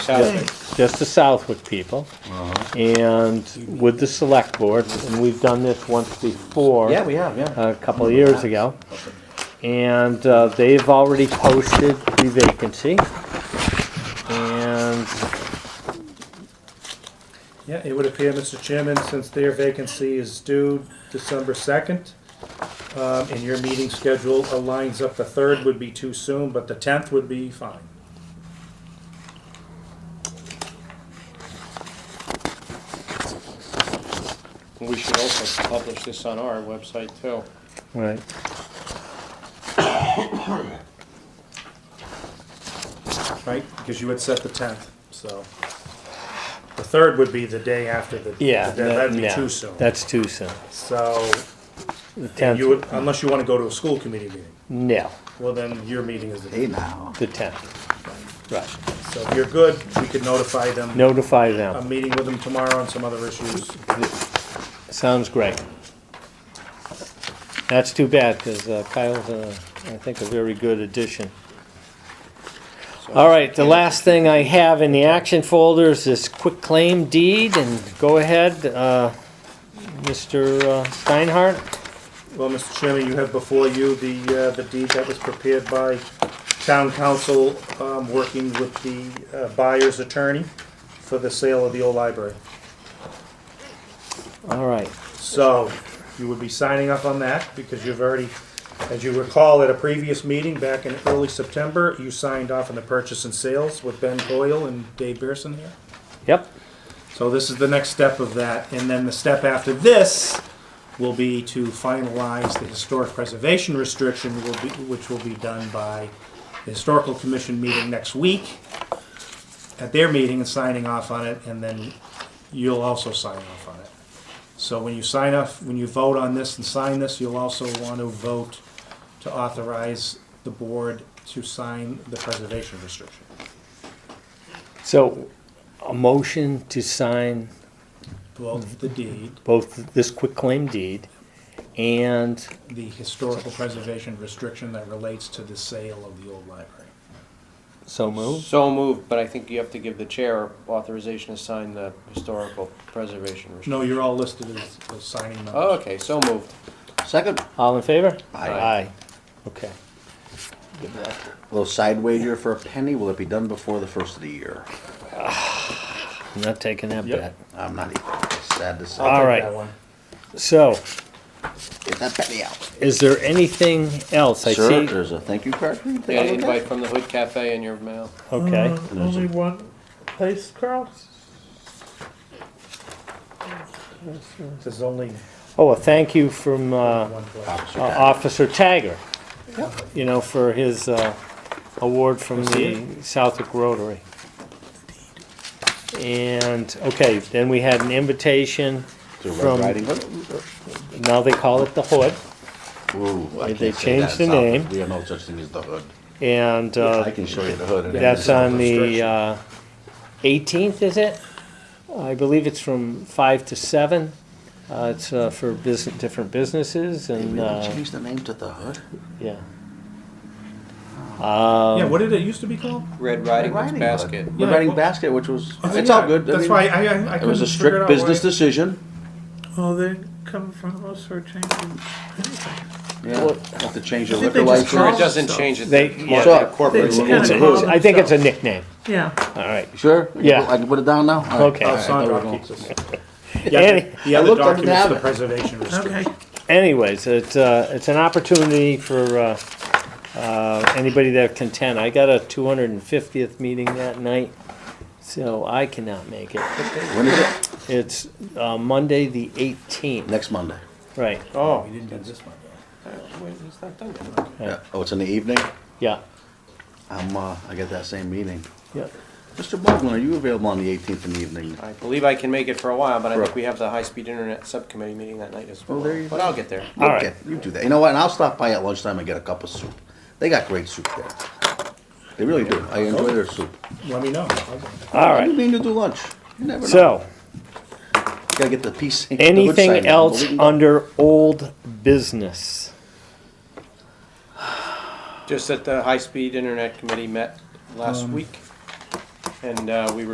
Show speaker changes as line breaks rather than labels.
just the Southwick people,
Uh-huh.
and with the select board, and we've done this once before.
Yeah, we have, yeah.
A couple of years ago. And uh, they've already posted the vacancy. And
Yeah, it would appear, Mr. Chairman, since their vacancy is due December 2nd, um, and your meeting schedule aligns up, the 3rd would be too soon, but the 10th would be fine.
We should also publish this on our website too.
Right.
Right, because you had set the tenth, so. The third would be the day after the.
Yeah.
the- That'd be
yeah,
too soon.
That's too soon.
So,
The
you
tenth,
would, unless you want to go to a school committee meeting,
no,
well, then your meeting is the
Hey
day.
now.
the tenth. Right.
So if you're good, we could notify them.
Notify
I'm
them.
meeting with them tomorrow on some other issues.
Sounds great. That's too bad, because Kyle's, uh, I think, a very good addition. All right, the last thing I have in the action folder is this quick claim deed, and go ahead, uh, Mr. uh, Steinhardt.
Well, Mr. Chairman, you have before you the, uh, the deed that was prepared by town council, um, working with the uh, buyer's attorney for the sale of the old library.
All right,
So you would be signing up on that because you've already, as you recall at a previous meeting back in early September, you signed off on the purchase and sales with Ben Boyle and Dave Pearson here.
yep,
So this is the next step of that. And then the step after this will be to finalize the historic preservation restriction, will be- which will be done by the Historical Commission meeting next week at their meeting and signing off on it, and then you'll also sign off on it. So when you sign off, when you vote on this and sign this, you'll also want to vote to authorize the board to sign the preservation restriction.
so a motion to sign
Both the deed,
both this quick claim deed and
the historical preservation restriction that relates to the sale of the old library.
so move.
So moved, but I think you have to give the chair authorization to sign the historical preservation. restriction.
No, you're all listed as, as signing members.
Oh, okay, so moved.
Second,
All in favor?
Aye.
Aye, okay.
little side wager for a penny. Will it be done before the first of the year?
I'm not taking that
Yep.
bet.
I'm not even sad to
I'll
Uh,
say.
take
all right.
that one.
So,
Get that penny out.
is there anything else? I
Sir,
see.
there's a thank you card for you.
You
Take
got
a
an
look at
invite
it.
from the Hood Cafe in your mail.
Okay,
Only one place, Carl?
There's only
oh, a thank you from, uh,
one place.
Officer
uh,
Pat.
Officer Tagger, you know, for his uh, award from the Southwick Rotary. And, okay, then we had an invitation
To Red
from-
Riding Hood.
now they call it the Hood,
Ooh, I
They
can't say that
changed the
in South-
name.
We have no such thing as the hood.
and uh,
I can show you the hood. and
that's
it's not
on the
restriction.
uh, 18th, is it? I believe it's from 5 to 7. Uh, It's uh, for business, different businesses
They
and,
really
uh,
changed the name to the hood?
yeah.
Yeah, what did it used to be called?
Um,
Red Riding Hood's
Riding Hood.
basket.
Red
Yeah,
Riding
well-
Basket, which was,
Oh,
it's
yeah,
all good. I
That's
mean,
why I, I, I
It was a
couldn't figure
strict
out why
business
it-
decision.
Oh, they come from all sorts of changes.
Yeah, have to change your
I think they
liquor
just
license.
Sure, it
Oh,
doesn't
so-
change it.
They-
They
yeah.
want to incorporate
It's
it.
kinda
It's-
call
it's-
it
I think it's a
itself.
nickname,
Yeah.
all right.
Sure? You
Yeah.
put- I can put it down now? All right.
Okay.
All
Oh,
right, I
Sandra
thought we were
keeps
going-
us.
Any-
Yeah, the
I
other
looked up and
document's
have
the
it.
preservation restriction.
Okay.
Anyways, it's, uh, it's an opportunity for, uh, uh, anybody that can attend. I got a two hundred and fiftieth meeting that night, so I cannot make it.
When is it?
It's, uh, Monday, the eighteenth,
Next Monday.
right,
Oh, we didn't do this one.
Uh, Wait, it's not done yet.
Yeah. Oh, it's in the evening?
yeah,
I'm, uh, I got that same meeting.
yeah.
Mr. Baldwin, are you available on the eighteenth in the evening?
I believe I can make it for a while, but I think
Right.
we have the high-speed internet subcommittee meeting that night as well.
there you
But I'll get there.
All right.
Okay, You do that. You know what? And I'll stop by at lunchtime and get a cup of soup. They got great soup there. They really do. I enjoy their soup.
Let me know.
All
I
right,
mean to do lunch. You never know.
so,
Gotta get the piece. the hood
anything
side down, but
else
we can go-
under old business?
Just that the high-speed internet committee met last week. And uh, we